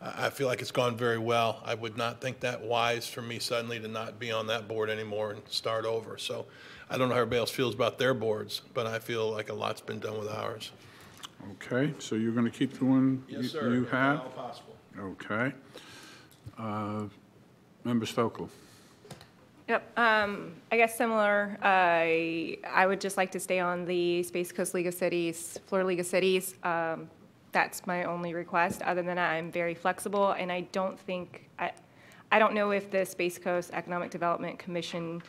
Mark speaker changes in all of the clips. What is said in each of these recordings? Speaker 1: I I feel like it's gone very well. I would not think that wise for me suddenly to not be on that board anymore and start over. So I don't know how everybody else feels about their boards, but I feel like a lot's been done with ours.
Speaker 2: Okay, so you're going to keep the one you you had?
Speaker 1: possible.
Speaker 2: Okay. Uh, Member Stokel?
Speaker 3: Yep, um, I guess similar, I, I would just like to stay on the Space Coast League of Cities, Florida League of Cities. Um, that's my only request. Other than that, I'm very flexible, and I don't think, I, I don't know if the Space Coast Economic Development Commission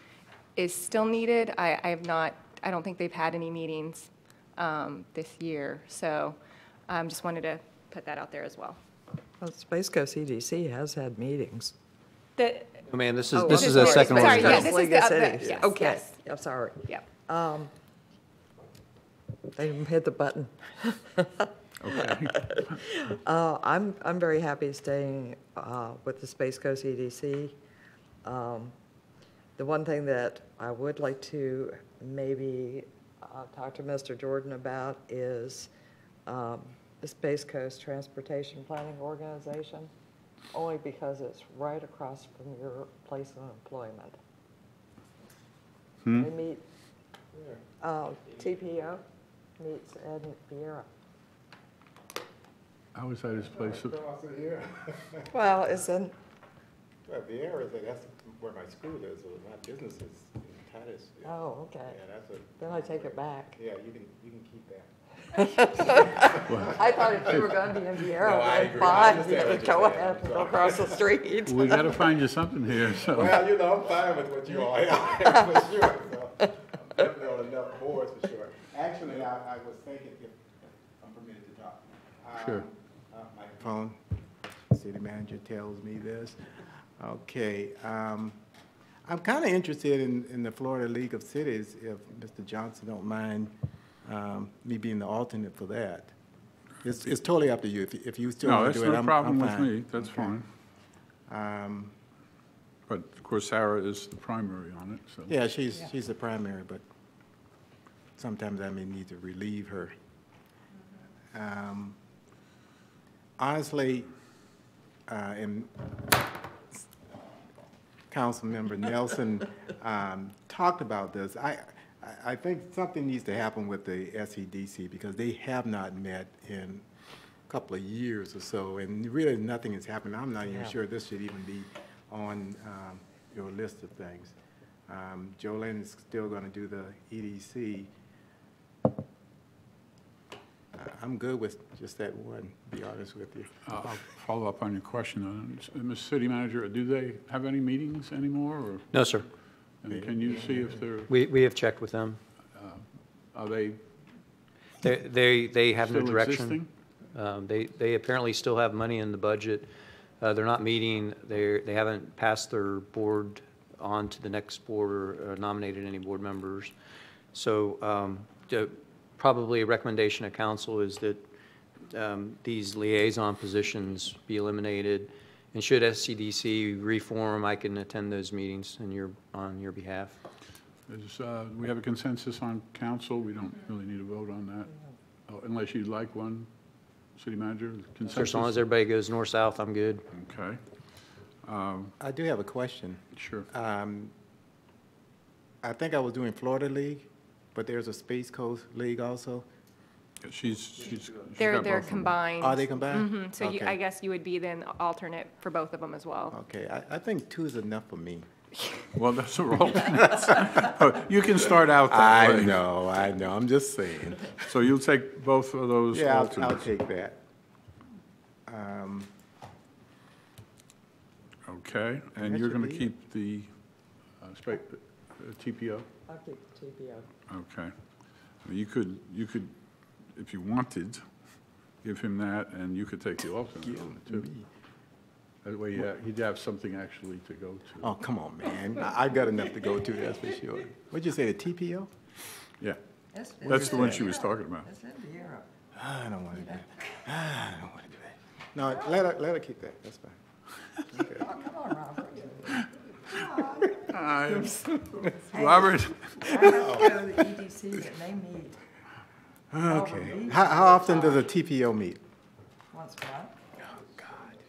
Speaker 3: is still needed. I, I have not, I don't think they've had any meetings, um, this year, so, um, just wanted to put that out there as well.
Speaker 4: Well, Space Coast EDC has had meetings.
Speaker 3: The,
Speaker 5: Oh, man, this is,
Speaker 4: Oh,
Speaker 5: this
Speaker 4: I'm
Speaker 5: is a
Speaker 3: sorry.
Speaker 5: second one.
Speaker 3: Sorry,
Speaker 5: we've
Speaker 3: yeah,
Speaker 5: done.
Speaker 3: this is
Speaker 4: League
Speaker 3: the
Speaker 4: of
Speaker 3: other-
Speaker 4: Cities.
Speaker 3: yes,
Speaker 4: Okay,
Speaker 3: yes.
Speaker 4: I'm sorry.
Speaker 3: yep.
Speaker 4: They didn't hit the button.
Speaker 2: Okay,
Speaker 4: Uh, I'm, I'm very happy staying uh, with the Space Coast EDC. Um, The one thing that I would like to maybe uh, talk to Mr. Jordan about is um, the Space Coast Transportation Planning Organization, only because it's right across from your place of employment. They meet, uh, TPO meets Ed Viera.
Speaker 2: how is that his place? of-
Speaker 6: Across the air.
Speaker 4: Well, it's in,
Speaker 6: Yeah, the air is, that's where my school is, so my business is in Titus. Yeah,
Speaker 4: oh, okay.
Speaker 6: that's a,
Speaker 4: Then I take it back.
Speaker 6: yeah, you can, you can keep that.
Speaker 4: I thought if you were going to be in Vieira,
Speaker 6: I
Speaker 4: I'd
Speaker 6: agree.
Speaker 4: buy,
Speaker 6: I
Speaker 4: you
Speaker 6: understand what
Speaker 4: could
Speaker 6: you're
Speaker 4: go
Speaker 6: saying.
Speaker 4: ahead and go across the street.
Speaker 2: We got to find you something here, so,
Speaker 6: Well, you know, I'm fine with what you all have, for sure, so, I'm definitely on enough boards for sure. Actually, I, I was thinking, if I'm permitted to talk. um,
Speaker 2: Sure.
Speaker 6: uh, My phone, city manager tells me this. Okay, um, I'm kinda interested in, in the Florida League of Cities, if Mr. Johnson don't mind, um, me being the alternate for that. It's, it's totally up to you, if, you- if you still
Speaker 2: no,
Speaker 6: wanna
Speaker 2: that's
Speaker 6: do it, I'm,
Speaker 2: no
Speaker 6: I'm
Speaker 2: problem with
Speaker 6: fine.
Speaker 2: me, that's
Speaker 6: Okay.
Speaker 2: fine.
Speaker 6: Um,
Speaker 2: But of course, Sarah is the primary on it, so.
Speaker 6: Yeah, she's, she's the primary, but sometimes I may need to relieve her. Um, Honestly, uh, and Councilmember Nelson um, talked about this. I, I- I think something needs to happen with the SEDC because they have not met in a couple of years or so, and really nothing has happened. I'm not even sure this should even be on um, your list of things. Um, Jolene is still going to do the E EDC. I- I'm good with just that one, to be honest with you.
Speaker 2: I'll I'll follow up on your question. on it. Uh, Mr. City Manager, do they have any meetings anymore, or,
Speaker 5: No, sir.
Speaker 2: and can you see if they're,
Speaker 5: We, we have checked with them.
Speaker 2: are they
Speaker 5: They- They, they have no
Speaker 2: Still
Speaker 5: direction.
Speaker 2: existing?
Speaker 5: Um, They, they apparently still have money in the budget. Uh, They're not meeting, they're, they haven't passed their board on to the next board or or nominated any board members. So um, the- probably a recommendation of council is that um, these liaison positions be eliminated. And should SCDC reform, I can attend those meetings in your, on your behalf.
Speaker 2: Is, uh, we have a consensus on council, we don't really need a vote on that, Oh, unless you'd like one, city manager,
Speaker 5: So As long as
Speaker 2: consensus?
Speaker 5: everybody goes north-south, I'm good.
Speaker 2: Okay,
Speaker 6: I do have a question.
Speaker 2: sure.
Speaker 6: Um, I think I was doing Florida League, but there's a Space Coast League also.
Speaker 2: She's, she's. she's
Speaker 3: They're,
Speaker 2: got
Speaker 3: they're
Speaker 2: both of them.
Speaker 3: combined.
Speaker 6: Are they combined?
Speaker 3: Mhm, So you,
Speaker 6: Okay.
Speaker 3: I guess you would be then alternate for both of them as well.
Speaker 6: Okay, I, I think two is enough for me.
Speaker 2: Well, that's a roll. Oh, You can start out that way.
Speaker 6: know, I know, I'm just saying.
Speaker 2: So you'll take both of those
Speaker 6: Yeah, I'll, I'll
Speaker 2: alternates?
Speaker 6: take that. Um,
Speaker 2: Okay, and
Speaker 6: That
Speaker 2: you're
Speaker 6: should
Speaker 2: going to
Speaker 6: be it.
Speaker 2: keep the uh, spa- uh, TPO?
Speaker 4: I'll keep TPO.
Speaker 2: Okay. I mean, You could, you could, if you wanted, give him that, and you could take the alternate on it, too. That way, yeah, he'd have something actually to go to.
Speaker 6: oh, come on, man, I, I've got enough to go to, that's for sure. What'd you say, the TPO?
Speaker 2: Yeah, that's the one she was talking about.
Speaker 4: It's in Vieira.
Speaker 6: I don't wanna do that. Ah, I don't wanna do that. No, let her, let her keep that, that's fine.
Speaker 4: Come on, Robert.
Speaker 2: Robert,
Speaker 4: Go to the EDC and they meet
Speaker 6: Okay. How, how often does a TPO meet?
Speaker 4: once a month.